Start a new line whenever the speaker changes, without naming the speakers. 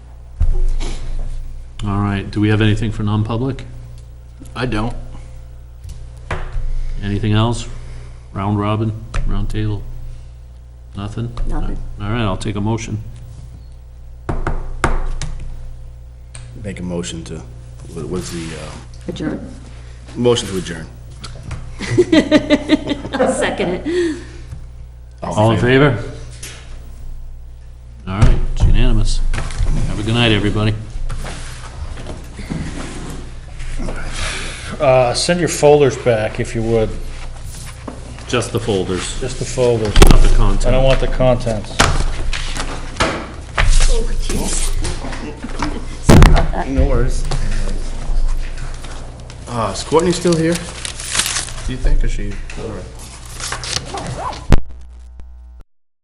All right, do we have anything for non-public?
I don't.
Anything else? Round robin, round table? Nothing?
Nothing.
All right, I'll take a motion.
Make a motion to, what- what's the, uh,
Adjourn.
motion to adjourn.
I'll second it.
All in favor? All right, it's unanimous. Have a good night, everybody.
Uh, Send your folders back, if you would,
Just the folders,
just the folders.
not the
I
content.
don't want the contents.
No worries. Uh, is Courtney still here? Do you think, or she? all right.